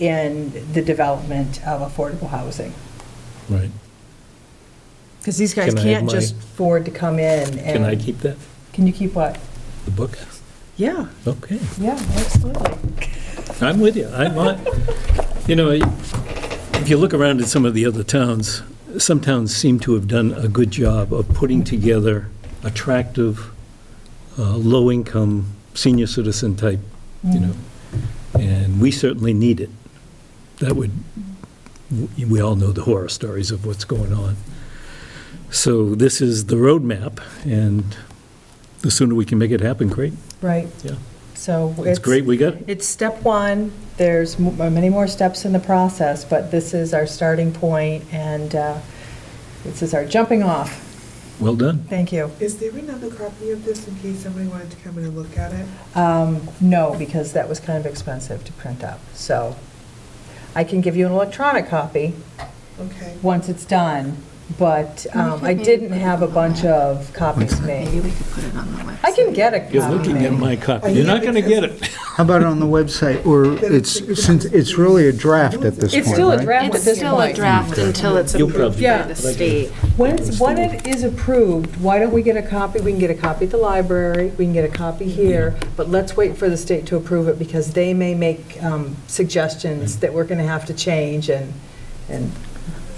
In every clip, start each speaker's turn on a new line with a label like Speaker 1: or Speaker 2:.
Speaker 1: in the development of affordable housing.
Speaker 2: Right.
Speaker 1: Because these guys
Speaker 2: Can I have
Speaker 1: can't
Speaker 2: my-
Speaker 1: just afford to come in and.
Speaker 2: Can I keep that,
Speaker 1: Can you keep what?
Speaker 2: the book?
Speaker 1: Yeah,
Speaker 2: Okay,
Speaker 1: yeah, absolutely.
Speaker 2: I'm with you. I'm on, you know, if you look around at some of the other towns, some towns seem to have done a good job of putting together attractive, uh, low-income, senior citizen type, you know, and we certainly need it. That would, we- we all know the horror stories of what's going on. So this is the roadmap, and the sooner we can make it happen, great.
Speaker 1: Right.
Speaker 2: Yeah.
Speaker 1: So it's.
Speaker 2: It's great we got it.
Speaker 1: It's step one. There's m- uh, many more steps in the process, but this is our starting point, and uh, this is our jumping off.
Speaker 2: Well done.
Speaker 1: Thank you.
Speaker 3: Is there another copy of this in case somebody wanted to come in and look at it?
Speaker 1: Um, No, because that was kind of expensive to print up, so I can give you an electronic copy
Speaker 3: Okay.
Speaker 1: once it's done, but um, I didn't have a bunch of copies
Speaker 4: Maybe
Speaker 1: made.
Speaker 4: we could put it on the website.
Speaker 1: I can get a copy
Speaker 2: You're looking at
Speaker 1: made.
Speaker 2: my copy. You're not going to get it.
Speaker 5: How about on the website, or it's, since it's really a draft at this point,
Speaker 1: It's still a
Speaker 5: right?
Speaker 1: draft at
Speaker 4: It's
Speaker 1: this
Speaker 4: still a
Speaker 1: point.
Speaker 4: draft until it's
Speaker 2: You'll
Speaker 4: approved by
Speaker 1: probably-
Speaker 4: the state.
Speaker 1: Once, when it is approved, why don't we get a copy? We can get a copy at the library, we can get a copy here, but let's wait for the state to approve it because they may make um, suggestions that we're going to have to change and, and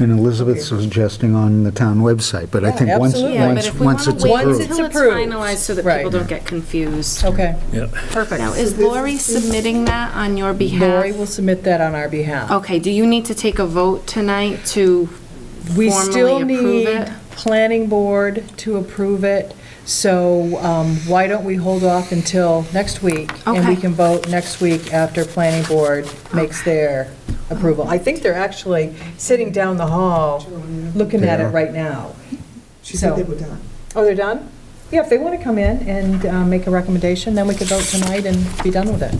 Speaker 5: And Elizabeth's suggesting on the town website, but I
Speaker 1: Yeah,
Speaker 5: think once,
Speaker 1: absolutely.
Speaker 4: Yeah, but
Speaker 5: once,
Speaker 4: if we want
Speaker 5: once
Speaker 4: to
Speaker 5: it's
Speaker 4: wait
Speaker 1: once
Speaker 5: approved.
Speaker 1: it's
Speaker 4: until it's
Speaker 1: approved.
Speaker 4: finalized so that
Speaker 1: Right.
Speaker 4: people don't get confused.
Speaker 1: Okay,
Speaker 2: Yeah.
Speaker 4: Now,
Speaker 1: perfect.
Speaker 4: is Lori submitting that on your
Speaker 1: Lori will
Speaker 4: behalf?
Speaker 1: submit that on our behalf.
Speaker 4: Okay, do you need to take a vote tonight to
Speaker 1: We still
Speaker 4: formally approve
Speaker 1: need
Speaker 4: it?
Speaker 1: planning board to approve it, so um, why don't we hold off until next week? And we
Speaker 4: Okay.
Speaker 1: can vote next week after planning board makes their approval. I think they're actually sitting down the hall, looking at it
Speaker 5: Yeah.
Speaker 1: right now.
Speaker 3: She said they
Speaker 1: So-
Speaker 3: were done.
Speaker 1: Oh, they're done? Yeah, if they want to come in and uh, make a recommendation, then we could vote tonight and be done with it.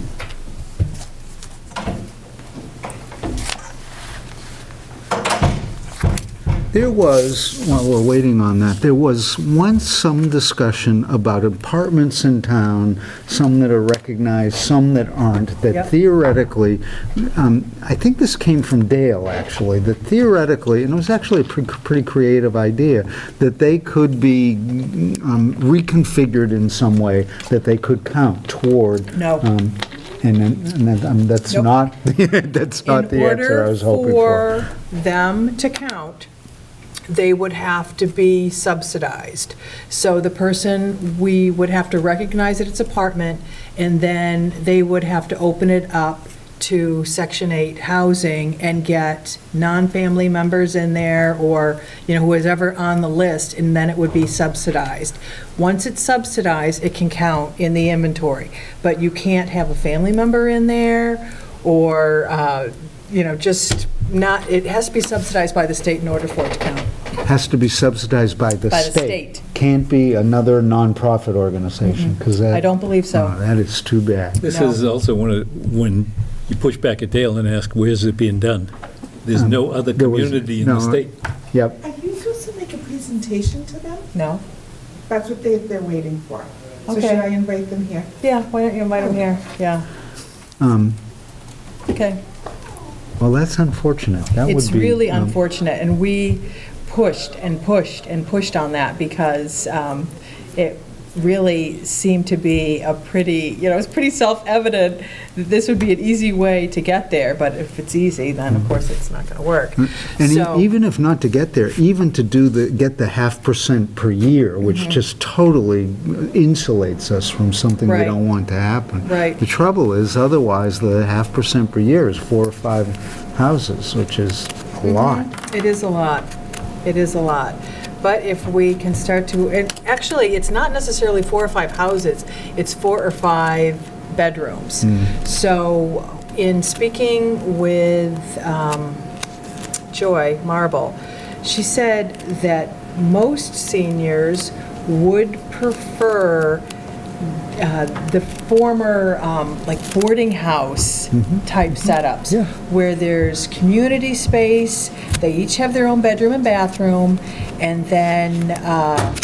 Speaker 5: There was, while we're waiting on that, there was once some discussion about apartments in town, some that are recognized, some that aren't,
Speaker 1: Yep.
Speaker 5: that theoretically, um, I think this came from Dale, actually, that theoretically, and it was actually a pre- pretty creative idea, that they could be um, reconfigured in some way, that they could count toward.
Speaker 1: No.
Speaker 5: um, And then- and then, um, that's
Speaker 1: Nope.
Speaker 5: not, that's not the answer I was hoping for.
Speaker 1: In order for them to count, they would have to be subsidized. So the person, we would have to recognize that it's apartment, and then they would have to open it up to Section 8 housing and get non-family members in there, or, you know, whoever on the list, and then it would be subsidized. Once it's subsidized, it can count in the inventory, but you can't have a family member in there, or, uh, you know, just not, it has to be subsidized by the state in order for it to count.
Speaker 5: has to be subsidized by the state.
Speaker 1: By the state. Mm-hmm.
Speaker 5: Can't be another nonprofit organization, because that...
Speaker 1: I don't believe so.
Speaker 5: Oh, That is too bad.
Speaker 2: This is also one of, when you push back at Dale and ask, where's it being done? There's no other
Speaker 5: There was-
Speaker 2: community in the
Speaker 5: no,
Speaker 2: state.
Speaker 5: Yep,
Speaker 3: Are you supposed to make a presentation to them?
Speaker 1: No?
Speaker 3: That's what they, they're waiting for. So should
Speaker 1: Okay.
Speaker 3: I invite them here?
Speaker 1: Yeah, why don't you invite them here? Yeah,
Speaker 5: um,
Speaker 1: okay.
Speaker 5: well, that's unfortunate. That would be...
Speaker 1: It's really
Speaker 5: um,
Speaker 1: unfortunate, and we pushed and pushed and pushed on that because um, it really seemed to be a pretty, you know, it's pretty self-evident that this would be an easy way to get there, but if it's easy, then of course it's not going to work.
Speaker 5: Mm. And e-
Speaker 1: So-
Speaker 5: even if not to get there, even to do the, get the half percent per year,
Speaker 1: Mm-hmm.
Speaker 5: which just totally insulates us from something we
Speaker 1: Right.
Speaker 5: don't want to happen.
Speaker 1: Right.
Speaker 5: The trouble is, otherwise, the half percent per year is four or five houses, which is a
Speaker 1: Mm-hmm.
Speaker 5: lot.
Speaker 1: It is a lot. It is a lot. But if we can start to, and actually, it's not necessarily four or five houses, it's four or five bedrooms.
Speaker 5: Mm.
Speaker 1: So in speaking with um, Joy Marble, she said that most seniors would prefer uh, the former, um, like boarding house type setups.
Speaker 5: Mm-hmm. Yeah.
Speaker 1: Where there's community space, they each have their own bedroom and bathroom, and then, uh,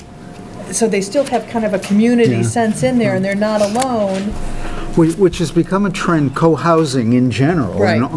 Speaker 1: so they still have kind of a community
Speaker 5: Yeah.
Speaker 1: sense in there, and they're not alone.
Speaker 5: Whi- Which has become a trend, co-housing in general. in
Speaker 1: Right.